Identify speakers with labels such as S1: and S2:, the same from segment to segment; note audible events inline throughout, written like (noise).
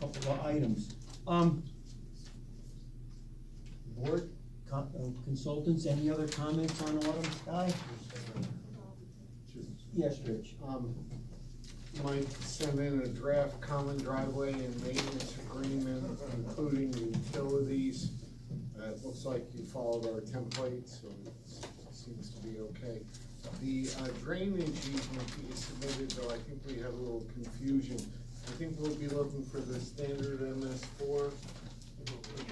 S1: couple of items. Um, board co- uh, consultants, any other comments on Autumn Sky? Yes, Rich.
S2: Um, Mike sent in a draft common driveway and maintenance agreement, including utilities. Uh, it looks like you followed our template, so it seems to be okay. The uh, drainage easement that you submitted, though, I think we had a little confusion. I think we'll be looking for the standard MS four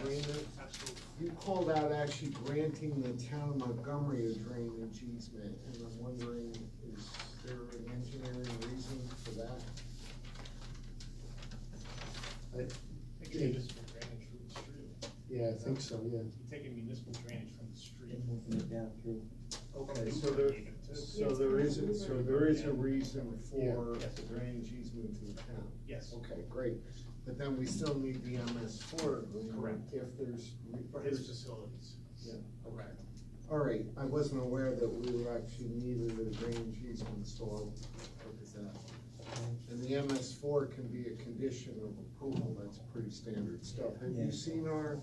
S2: agreement.
S3: Absolutely.
S2: You called out actually granting the town of Montgomery a drainage easement, and I'm wondering, is there an engineering reason for that?
S3: I think it's municipal drainage from the street.
S2: Yeah, I think so, yeah.
S3: You're taking municipal drainage from the street.
S1: Moving it down through.
S2: Okay, so there, so there is, a- so there is a reason for the drainage easement to the town.
S3: Yes,
S2: Okay, great, but then we still need the MS four agreement.
S3: Correct.
S2: If there's. re-
S3: for his facilities.
S2: Okay. All right, I wasn't aware that we were actually needed a drainage easement, so I'll look at that. And the MS four can be a condition of approval, that's pretty standard stuff. Have
S1: Yeah.
S2: you seen our,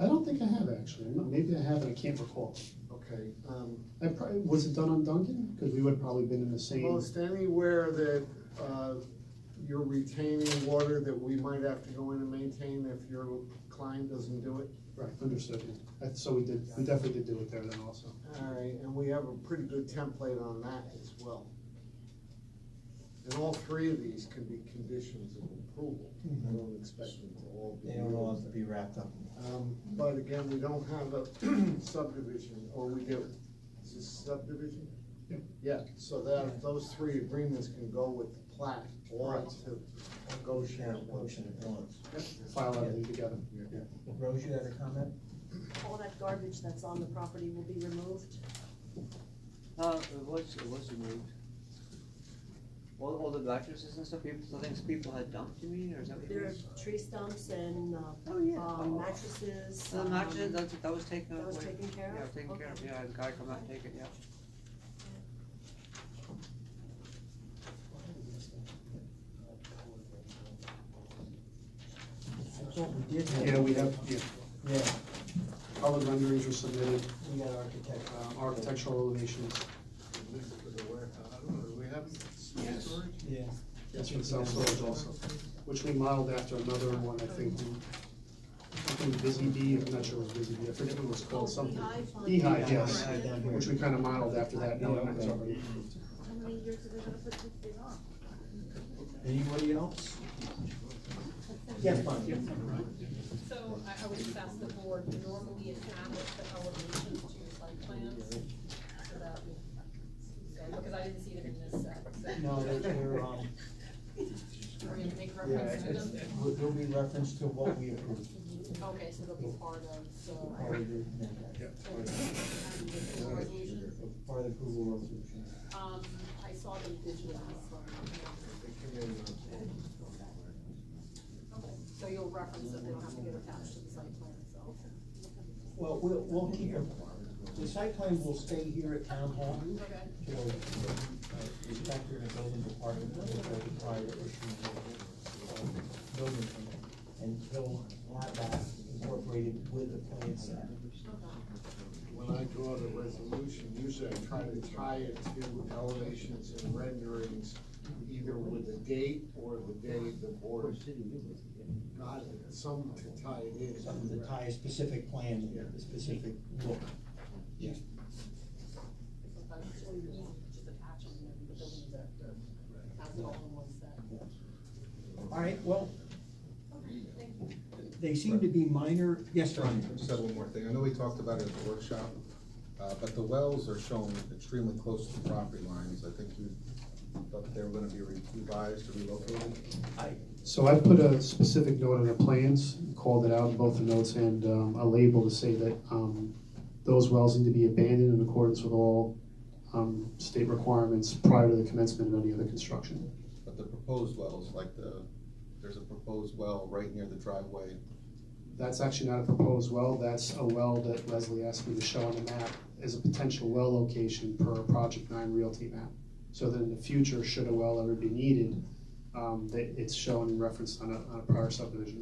S4: I don't think I have actually. No, Maybe I have, and I can't recall.
S2: okay, um,
S4: I probably, was it done on Duncan? Because we would have probably been in the same.
S2: most anywhere that, uh, you're retaining water that we might have to go in and maintain if your client doesn't do it?
S4: Right, understood. yeah. Uh, So we did, we definitely did do it there then also.
S2: All right, and we have a pretty good template on that as well. And all three of these can be conditions of approval. I don't expect them to all be.
S1: Mm-hmm. They don't all have to be wrapped up.
S2: Um, but again, we don't have a (clears throat) subdivision, or we do. Is this subdivision?
S4: Yep.
S2: Yeah, so that, those three agreements can go with the plat or
S1: Right.
S2: to negotiate.
S1: Sharon, motion at once.
S4: File everything together.
S1: Rose, you had a comment?
S5: all that garbage that's on the property will be removed.
S6: Uh, it was, it was removed. All, all the mattresses and stuff, people, so things people had dumped, you mean, or is that what you
S5: There
S6: mean?
S5: are tree stumps and, uh,
S6: Oh, yeah.
S5: um,
S6: Oh.
S5: mattresses.
S6: So the mattress,
S5: um,
S6: that, that was taken away.
S5: That was taken care of?
S6: Yeah, taken care of,
S5: Okay.
S6: yeah, the guy come out and take it, yeah.
S1: I thought we did have.
S4: Yeah, we have, yeah,
S1: Yeah,
S4: all the renderings were submitted,
S1: we got architect.
S4: um, architectural elevations.
S2: This for the warehouse, I don't know, do we have
S4: Yes.
S2: storage?
S1: Yeah.
S4: That's for the self-storage also, which we modeled after another one, I think. I think Busy Bee, I'm not sure what Busy Bee, I forget what it was
S5: Oh,
S4: called, something.
S5: beehive on
S4: Beehive,
S5: the
S4: yes.
S5: ground.
S1: Down here.
S4: Which we kind of modeled after that, now that it's already approved.
S5: How many years are they gonna put this thing on?
S1: Anybody else? Yes, fine.
S7: So I, I would just ask the board, to normally attach the elevations to your site plans, so that we, so, because I didn't see them in this set, so.
S1: No, they're, they're, um,
S7: Are we gonna make
S1: yeah,
S7: reference to
S1: it's,
S7: them?
S1: will will be reference to what we approved.
S7: Okay, so they'll be part of, so.
S1: Part of the, yeah,
S7: the resolution.
S1: part of the approval resolution.
S7: Um, I saw them digitally, so.
S2: They came in, uh,
S7: Okay, So you'll reference that they don't have to get attached to the site plan itself.
S1: Well, we'll, we'll keep it, the site plan will stay here at town hall
S7: Okay.
S1: till uh, the inspector and the building department will go to prior issue of the uh, building permit. And he'll have that incorporated with the plan set.
S2: When I draw the resolution, usually I try to tie it to elevations and renderings, either with the date or the day the board got it, some to tie it in.
S1: Something to tie a specific plan,
S2: Yeah.
S1: a specific look.
S7: Sometimes it's really easy to just attach them, and the building inspector has it all in one set.
S1: All right, well, they seem to be minor, yes, Ron?
S8: Just have one more thing. I know we talked about it at the workshop, uh, but the wells are shown extremely close to the property lines. I think you thought they were gonna be revised or relocated.
S4: So I put a specific note on the plans, called it out in both the notes and um, a label to say that um, those wells need to be abandoned in accordance with all um, state requirements prior to the commencement of any other construction.
S8: But the proposed wells, like the, there's a proposed well right near the driveway.
S4: That's actually not a proposed well, that's a well that Leslie asked me to show on the map as a potential well location per Project Nine Realty map. So that in the future, should a well ever be needed, um, that it's shown and referenced on a, on a prior subdivision